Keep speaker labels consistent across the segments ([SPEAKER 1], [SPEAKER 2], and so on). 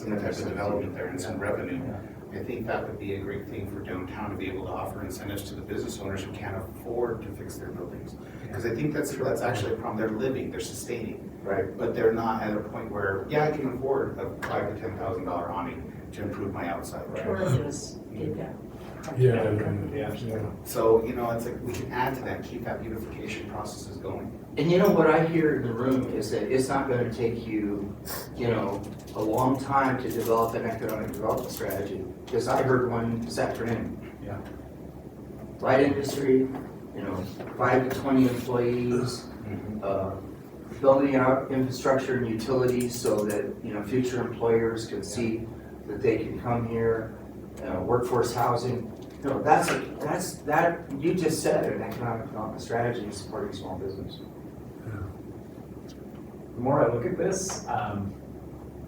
[SPEAKER 1] different types of development there and some revenue. I think that would be a great thing for downtown to be able to offer incentives to the business owners who can't afford to fix their buildings. Because I think that's, that's actually a problem. They're living, they're sustaining,
[SPEAKER 2] Right.
[SPEAKER 1] but they're not at a point where, yeah, I can afford a five to ten thousand dollar awning to improve my outside.
[SPEAKER 3] Tourismus did that.
[SPEAKER 4] Yeah. and-
[SPEAKER 2] Yeah.
[SPEAKER 1] So, you know, it's like, we can add to that, keep that beautification processes going.
[SPEAKER 2] And you know what I hear in the room is that it's not gonna take you, you know, a long time to develop an economic development strategy. Because I heard one this afternoon.
[SPEAKER 1] Yeah.
[SPEAKER 2] Light industry, you know, five to twenty employees, uh, building out infrastructure and utilities so that, you know, future employers can see that they can come here, uh, workforce housing. No, that's, that's, that, you just said an economic development strategy in supporting small business.
[SPEAKER 5] The more I look at this, um,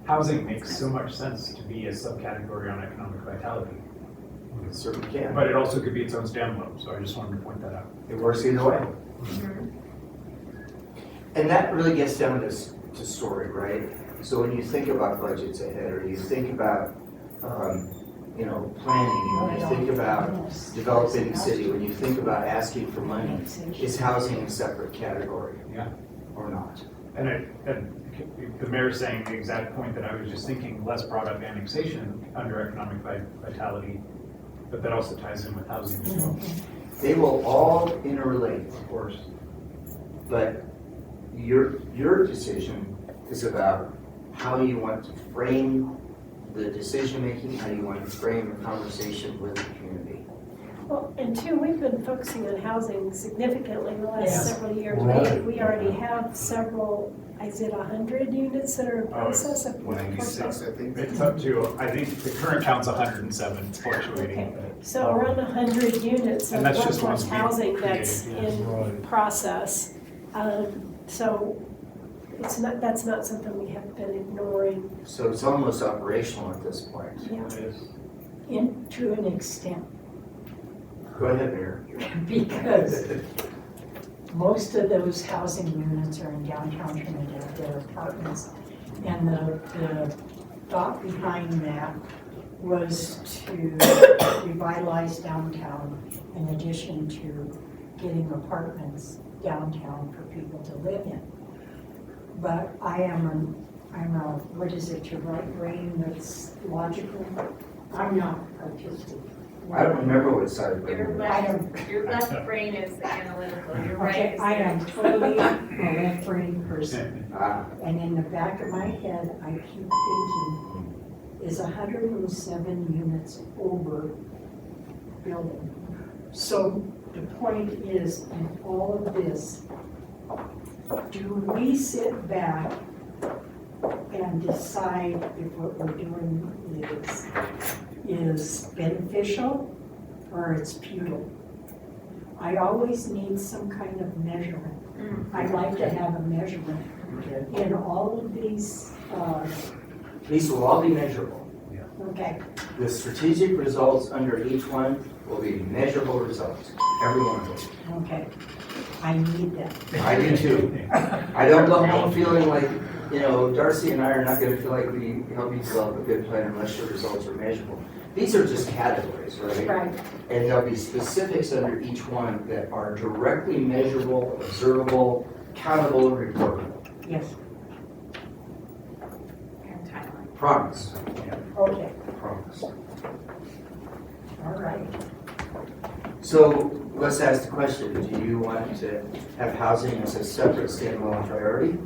[SPEAKER 5] housing makes so much sense to be a subcategory on economic vitality.
[SPEAKER 2] It certainly can,
[SPEAKER 5] But it also could be its own standalone, so I just wanted to point that out.
[SPEAKER 2] it works either way. And that really gets down to, s- to story, right? So when you think about budgets ahead, or you think about, um, you know, planning, when you think about developing the city, when you think about asking for money, Is housing a separate category?
[SPEAKER 5] Yeah.
[SPEAKER 2] Or not?
[SPEAKER 5] And I, and the mayor's saying the exact point that I was just thinking, Les brought up annexation under economic vi- vitality, but that also ties in with housing as well,
[SPEAKER 2] They will all interrelate,
[SPEAKER 5] of course.
[SPEAKER 2] but your, your decision is about how you want to frame the decision-making, how you want to frame the conversation with the community.
[SPEAKER 6] Well, and two, we've been focusing on housing significantly in the last
[SPEAKER 3] Yes.
[SPEAKER 6] several years.
[SPEAKER 4] Right.
[SPEAKER 6] We we already have several, is it 100 units that are in
[SPEAKER 5] Oh, it's
[SPEAKER 6] process of?
[SPEAKER 1] Ninety-six, I think.
[SPEAKER 5] It's up to, I think the current count's hundred and seven, it's fluctuating, but.
[SPEAKER 6] So around 100 units of
[SPEAKER 5] And that's just
[SPEAKER 6] workforce
[SPEAKER 5] ones we
[SPEAKER 6] housing that's
[SPEAKER 5] created,
[SPEAKER 6] in
[SPEAKER 4] Right.
[SPEAKER 6] process. Um, So it's not, that's not something we have been ignoring,
[SPEAKER 2] So it's almost operational at this point.
[SPEAKER 6] yeah,
[SPEAKER 5] It is.
[SPEAKER 3] In, to an extent,
[SPEAKER 2] Go ahead, Mayor.
[SPEAKER 3] because most of those housing units are in downtown Trinidad, they're apartments. And the, the thought behind that was to revitalize downtown in addition to getting apartments downtown for people to live in. But I am, an- I'm a, what is it, your right brain that's logical? I'm not artistic.
[SPEAKER 2] I don't remember what side of
[SPEAKER 7] Your
[SPEAKER 2] the.
[SPEAKER 7] left, your left brain is the analytical, your right
[SPEAKER 3] Okay,
[SPEAKER 7] is
[SPEAKER 3] I
[SPEAKER 7] the.
[SPEAKER 3] am totally a left-brain person,
[SPEAKER 2] Ah,
[SPEAKER 3] and in the back of my head, I keep thinking, is hundred and seven units over building? So the point is, in all of this, do we sit back and decide if what we're doing is, is beneficial or it's futile? I always need some kind of measurement.
[SPEAKER 7] Mm.
[SPEAKER 3] I'd like to have a measurement
[SPEAKER 2] okay.
[SPEAKER 3] in all of these, uh,
[SPEAKER 2] These will all be measurable.
[SPEAKER 3] okay,
[SPEAKER 2] The strategic results under each one will be measurable results, every one of them.
[SPEAKER 3] okay, I need that.
[SPEAKER 2] I do too. I don't go home feeling like, you know, Darcy and I are not gonna feel like we helped you develop a good plan unless your results are measurable. These are just categories, right?
[SPEAKER 3] Right.
[SPEAKER 2] And there'll be specifics under each one that are directly measurable, observable, countable, and reportable.
[SPEAKER 3] Yes,
[SPEAKER 7] And timeline.
[SPEAKER 2] Promise,
[SPEAKER 3] okay,
[SPEAKER 2] promise.
[SPEAKER 3] all right.
[SPEAKER 2] So let's ask the question, do you want to have housing as a separate standalone priority?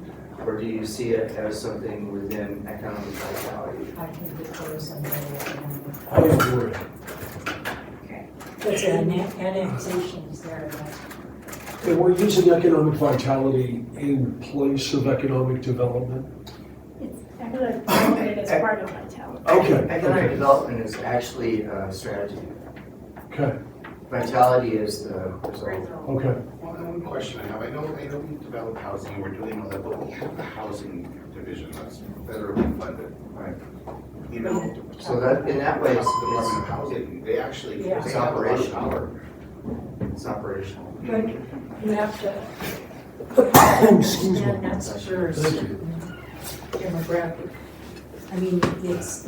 [SPEAKER 2] Or do you see it as something within economic vitality?
[SPEAKER 3] I can defer some of that.
[SPEAKER 4] I agree.
[SPEAKER 3] But the anne- annexation is there, but
[SPEAKER 4] And we're using economic vitality in place of economic development.
[SPEAKER 6] it's economic development as part of vitality.
[SPEAKER 4] Okay.
[SPEAKER 2] Economic development is actually a strategy.
[SPEAKER 4] Okay,
[SPEAKER 2] Vitality is the result.
[SPEAKER 3] Oh,
[SPEAKER 7] Result.
[SPEAKER 4] okay.
[SPEAKER 1] One one question I have, I know, I know we develop housing, we're doing all that, but we have the housing division that's federally funded.
[SPEAKER 2] Right.
[SPEAKER 1] You know,
[SPEAKER 2] So that, in that way, it's,
[SPEAKER 1] the Department of
[SPEAKER 2] it's-
[SPEAKER 1] Housing, they actually, they
[SPEAKER 3] Yeah.
[SPEAKER 1] have a lot of
[SPEAKER 2] Operation.
[SPEAKER 1] power.
[SPEAKER 2] it's operational.
[SPEAKER 3] but you have to,
[SPEAKER 4] Excuse me.
[SPEAKER 3] and that's first
[SPEAKER 4] Thank you.
[SPEAKER 3] demographic. I mean, it's